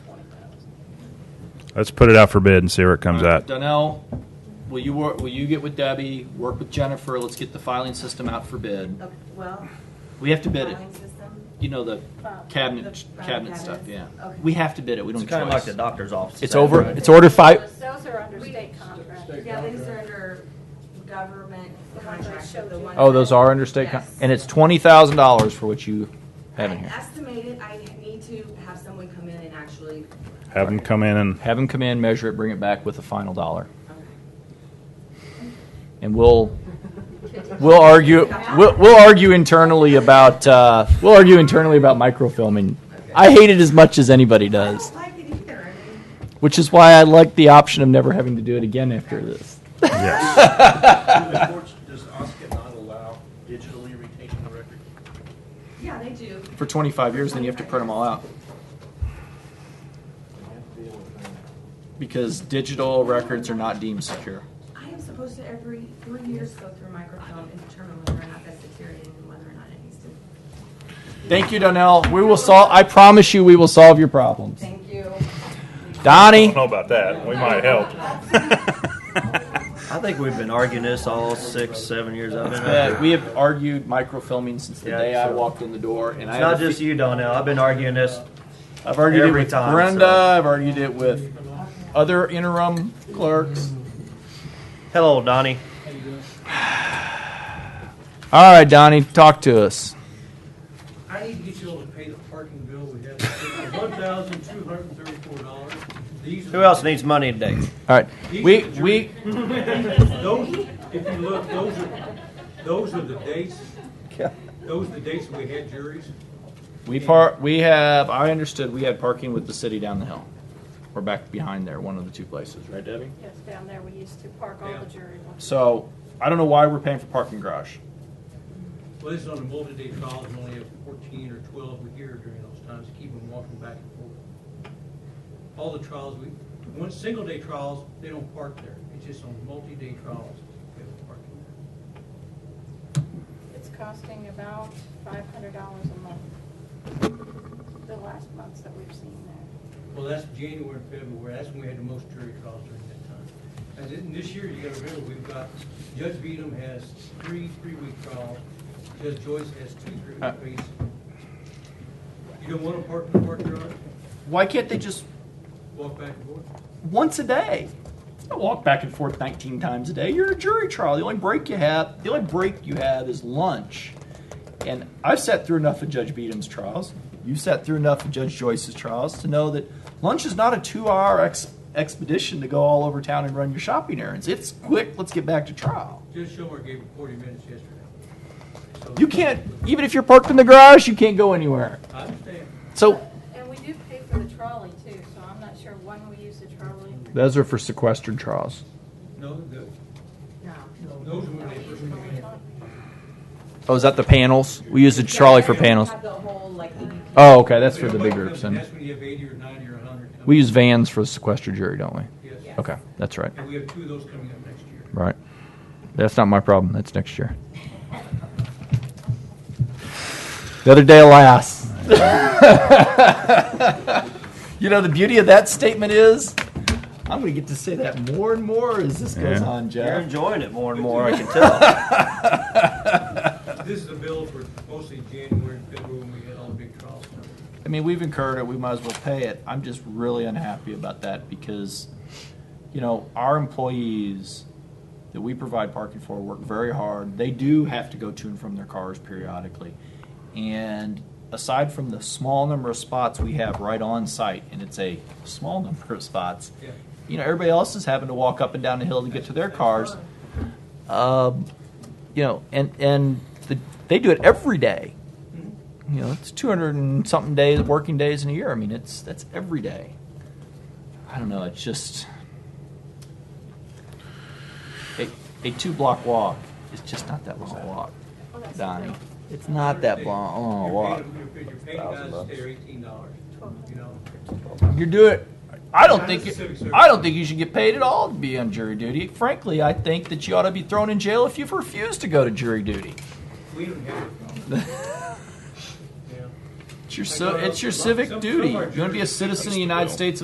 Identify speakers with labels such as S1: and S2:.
S1: Let's put it out for bid and see where it comes out.
S2: Uh, Donnell, will you, wor- will you get with Debbie, work with Jennifer, let's get the filing system out for bid.
S3: Okay, well,
S2: We have to bid it,
S3: filing system,
S2: you know, the
S3: File- the
S2: cabinet, cabinet
S3: file cabinets.
S2: stuff, yeah.
S3: Okay.
S2: We have to bid it, we
S4: It's
S2: don't
S4: kind of like
S2: have
S4: the
S2: a choice.
S4: doctor's office.
S2: It's
S4: Is that
S2: over,
S4: right?
S2: it's order five,
S5: Those those are under state contract.
S3: yeah, these are under government contract. the ones
S2: oh, those
S3: that-
S2: are under state, con-
S3: Yes.
S2: and it's twenty thousand dollars for what you have in
S3: I
S2: here.
S3: estimated, I need to have someone come in and actually,
S1: Have them come in and
S2: Have them come in, measure it, bring it back with the final dollar. And we'll, we'll argue, we'll, we'll argue internally about, uh, we'll argue internally about microfilming. I hate it as much as anybody
S3: I
S2: does,
S3: don't like it either. I mean,
S2: which is why I like the option of never having to do it again after this.
S1: yes,
S6: the courts, does OSCA not allow digitally retaining the record?
S3: Yeah, they do.
S2: For twenty-five years, then you have to print them all out.
S6: They have to be able to-
S2: Because digital records are not deemed secure.
S3: I am supposed to every three years go through microfilm and determine whether or not that's deteriorating and whether or not it needs to.
S2: Thank you, Donnell. We will solve, I promise you, we will solve your problems.
S3: Thank you.
S1: don't
S2: Donnie?
S1: know about that. We might help.
S4: I think we've been arguing this all six, seven years I've been.
S2: Uh,
S4: out here.
S2: we have argued microfilming since the
S4: Yeah,
S2: day I
S4: so-
S2: walked in the door, and I
S4: It's
S2: have
S4: not
S2: a
S4: just
S2: fe-
S4: you, Donnell. I've been arguing this.
S2: I've argued it
S4: every
S2: with
S4: time,
S2: Brenda.
S4: so-
S2: I've argued it with other interim clerks.
S4: Hello, Donnie.
S2: All right, Donnie, talk to us.
S7: I need to get you all to pay the parking bill we have, one thousand two hundred and thirty-four dollars.
S4: Who else needs money today?
S2: All right, we we
S7: Those, if you look, those are, those are the dates, those are the dates we had juries.
S2: we par we have. I understood we had parking with the city down the hill. We're back behind there, one of the two places, right, Debbie?
S5: Yes, down there, we used to park all the jury ones.
S2: So I don't know why we're paying for parking garage.
S7: Well, this is on a multi-day trial, and only have fourteen or twelve a year during those times, to keep them walking back and forth. All the trials, we, one, single-day trials, they don't park there, it's just on multi-day trials, they have parking there.
S5: It's costing about five hundred dollars a month. The last months that we've seen there.
S7: Well, that's January and February, that's when we had the most jury trials during that time. And then this year, you gotta remember, we've got, Judge Beadham has three, three-week trials, Judge Joyce has two
S2: Uh.
S7: three-week trials. You don't wanna park in the park yard,
S2: Why can't they just
S7: walk back and forth?
S2: once a day. I walk back and forth 19 times a day. You're in a jury trial. The only break you have, the only break you have is lunch. And I've sat through enough of Judge Beadham's trials. You sat through enough of Judge Joyce's trials to know that lunch is not a two-hour ex- expedition to go all over town and run your shopping errands. It's quick. Let's get back to trial.
S7: Judge Schumer gave him forty minutes yesterday. So-
S2: You can't, even if you're parked in the garage, you can't go anywhere.
S7: I understand.
S2: So
S5: And we do pay for the trolley too, so I'm not sure when we use the trolley.
S2: those are for sequestered trials.
S7: No, the,
S3: No.
S7: those were when they first came in.
S2: Oh, is that the panels? We use the trolley for panels.
S3: Have the whole, like, EDP.
S2: Oh, okay. That's
S7: They
S2: for the
S7: don't
S2: big
S7: like them,
S2: groups. then.
S7: That's when you have eighty or ninety or hundred coming.
S2: We use vans for the sequestered jury, don't we?
S7: Yes,
S2: Okay, that's right.
S7: and we have two of those coming up next year.
S2: Right. That's not my problem. That's next year. The other day, alas. you know, the beauty of that statement is I'm going to get to say that more and more as this goes
S1: Yeah.
S2: on,
S4: You're
S2: Jeff.
S4: enjoying it more and more, I can tell.
S7: This is a bill for mostly January, and February, when we had all the big trials.
S2: I mean, we've incurred it. We might as well pay it. I'm just really unhappy about that because, you know, our employees that we provide parking for work very hard. They do have to go to and from their cars periodically. And aside from the small number of spots we have right on site, and it's a small number of spots,
S7: Yeah.
S2: you know, everybody else is having to walk up and down the hill to get to their cars. Um, you know, and and the, they do it every day. You know, it's 200 and something days, working days in a year. I mean, it's that's every day. I don't know. It's just a, a two block walk is just not that long a walk,
S5: Well, that's
S2: Donnie. It's
S7: Not
S2: not that long, long a walk.
S7: Your pay guys stay are eighteen dollars, you know.
S2: You're doing. I don't
S7: Not
S2: think
S7: a civic
S2: you,
S7: service.
S2: I don't think you should get paid at all to be on jury duty. Frankly, I think that you ought to be thrown in jail if you've refused to go to jury duty.
S7: We don't have a problem. Yeah.
S2: It's your, ci- it's your civic duty. You're going to be a citizen of the United States